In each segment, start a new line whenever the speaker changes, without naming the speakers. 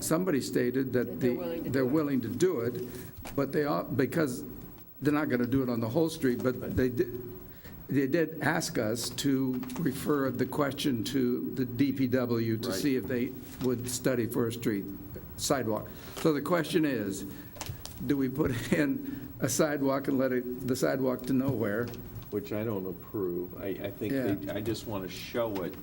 somebody stated that the, they're willing to do it, but they are, because they're not going to do it on the whole street, but they did, they did ask us to refer the question to the DPW to
Right.
see if they would study for a street sidewalk. So the question is, do we put in a sidewalk and let it, the sidewalk to nowhere?
Which I don't approve. I, I think,
Yeah.
they- I just want to show it,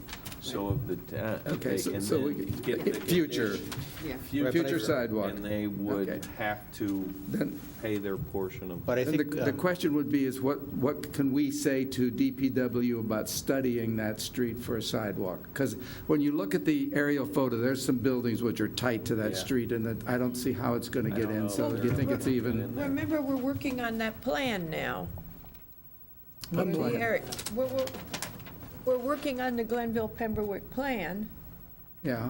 so if the, ta- if
Okay,
they
so-
can
so we
then
can-
get the
future.
condition-
Yeah.
Future sidewalk.
And they would
Okay.
have to
Then-
pay their portion of.
But I
And the,
think,
the
um,
question would be is what, what can we say to DPW about studying that street for a sidewalk? Because when you look at the aerial photo, there's some buildings which are tight to that
Yeah.
street and that, I don't see how it's going to
I
get
don't know
in. So
if
do you
they're
think
gonna
it's
get
even?
in there.
Remember, we're working on that plan now.
What
We're-
plan?
Eric, We're, we're, we're working on the Glenville Pembroke plan,
Yeah,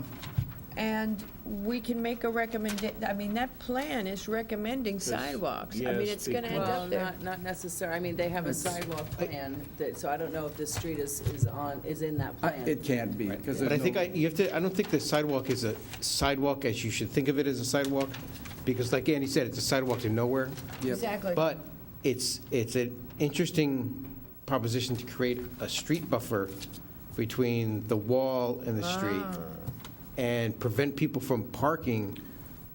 and we can make a recommend, I mean, that plan is recommending sidewalks. I mean,
yes,
it's gonna end
Well,
up there.
not, not necessarily, I mean, they have a sidewalk plan, that- so I don't know if this street is, is on, is in that
I-
plan.
it can't be because
but I
there's
think I,
no,
you have to, I don't think the sidewalk is a sidewalk as you should think of it as a sidewalk, because like Andy said, it's a sidewalk to nowhere.
Yep.
Exactly.
But it's, it's an interesting proposition to create a street buffer between the wall and the street and prevent people from parking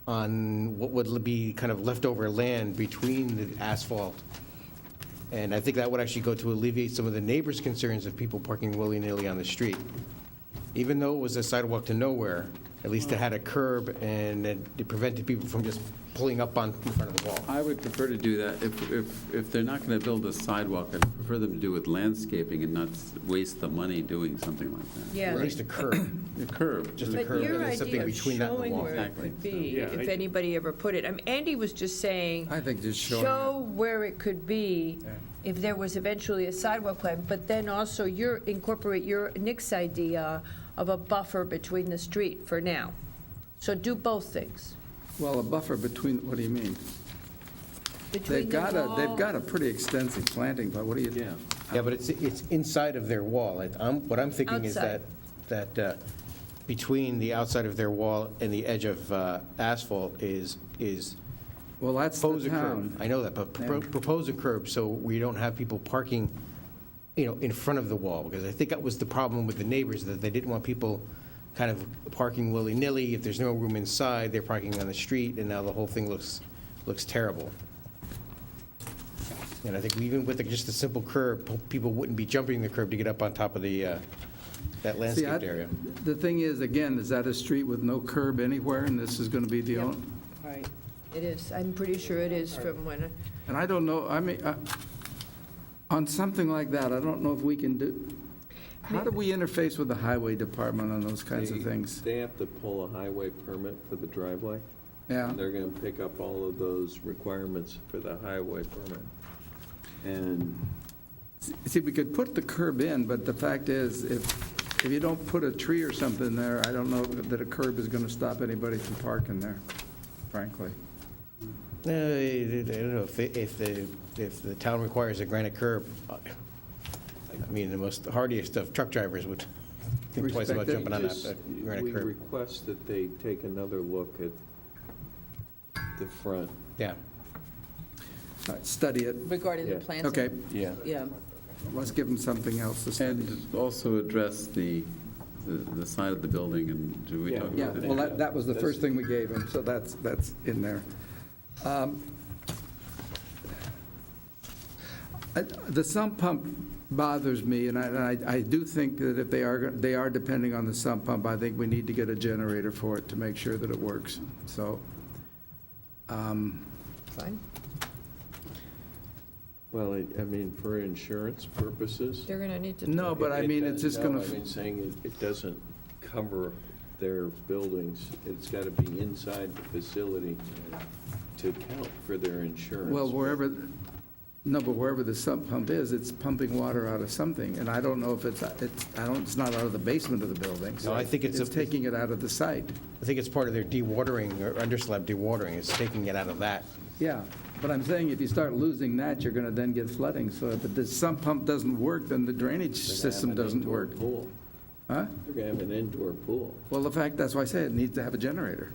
on what would be kind of leftover land between the asphalt. And I think that would actually go to alleviate some of the neighbors' concerns of people parking willy-nilly on the street. Even though it was a sidewalk to nowhere, at least it had a curb and it prevented people from just pulling up on, in front of the wall.
I would prefer to do that, if, if, if they're not going to build a sidewalk, I'd prefer them to do with landscaping and not s- waste the money doing something like that.
Or at
Yeah.
least a curb.
A curb.
Just a
But
curb,
your
and there's
idea
something
of
between that and the
showing
wall.
where it
Exactly,
could
so-
be,
Yeah,
if
I-
anybody ever put it, I mean, Andy was just saying,
I think just showing
show
it.
where it could be if there was eventually a sidewalk plan, but then also your, incorporate your, Nick's idea of a buffer between the street for now. So do both things.
Well, a buffer between, what do you mean? They've
Between the
got a,
wall-
they've got a pretty extensive planting, but what do you,
Yeah.
Yeah, but it's, it's inside of their wall. It- I'm, what I'm thinking is that,
Outside.
that uh, between the outside of their wall and the edge of uh, asphalt is, is
well, that's
propose
the
a curb.
town.
I know that, but pro-
Yeah.
propose a curb so we don't have people parking, you know, in front of the wall. Because I think that was the problem with the neighbors, that they didn't want people kind of parking willy-nilly. If there's no room inside, they're parking on the street, and now the whole thing looks, looks terrible. And I think even with just a simple curb, po- people wouldn't be jumping the curb to get up on top of the, uh, that
See, I-
landscaped area.
The thing is, again, is that a street with no curb anywhere and this is going to be the
Yep.
only?
Right.
It is, I'm pretty sure it is from when,
And I don't know, I mean, I- on something like that, I don't know if we can do, how do we interface with the highway department on those kinds of
They-
things?
They have to pull a highway permit for the driveway.
Yeah,
They're going to pick up all of those requirements for the highway permit. And
see, we could put the curb in, but the fact is, if, if you don't put a tree or something there, I don't know that a curb is going to stop anybody from parking there, frankly.
No, Uh, I I don't know, if, the- if the, if the town requires a granite curb, I mean, the most hardiest of truck drivers would think twice about
Respect it.
jumping on
Just-
that uh,
We
granite curb.
request that they take another look at the front.
Yeah,
All right, Uh, Study it.
Regarding the
Yeah.
plans.
Okay,
Yeah.
Yeah,
let's give them something else to study.
And also address the, the the side of the building, and do we
Yeah.
talk
Yeah,
about that?
well, that, that was the first thing we gave him, so that's, that's in there. Um, I- The sump pump bothers me, and I, and I I do think that if they are, go- they are depending on the sump pump, I think we need to get a generator for it to make sure that it works, so. um,
fine,
Well, I- I mean, for insurance purposes.
they're gonna need to.
No, but I
It- it
mean, it's
does-
just gonna,
No, I mean, saying it, it doesn't cover their buildings. It's got to be inside the facility to count for their insurance.
well, wherever, no, but wherever the sump pump is, it's pumping water out of something, and I don't know if it's, it's, I don't, it's not out of the basement of the building. so
No, I think it's a-
It's taking it out of the site.
I think it's part of their dewatering, or underslab dewatering, is taking it out of that.
Yeah, but I'm saying if you start losing that, you're going to then get flooding. So if the sump pump doesn't work, then the drainage
They're gonna have
system
an
doesn't
indoor
work.
Pool.
Huh?
They're going to have an indoor pool.
Well, the fact, that's why I say it needs to have a generator.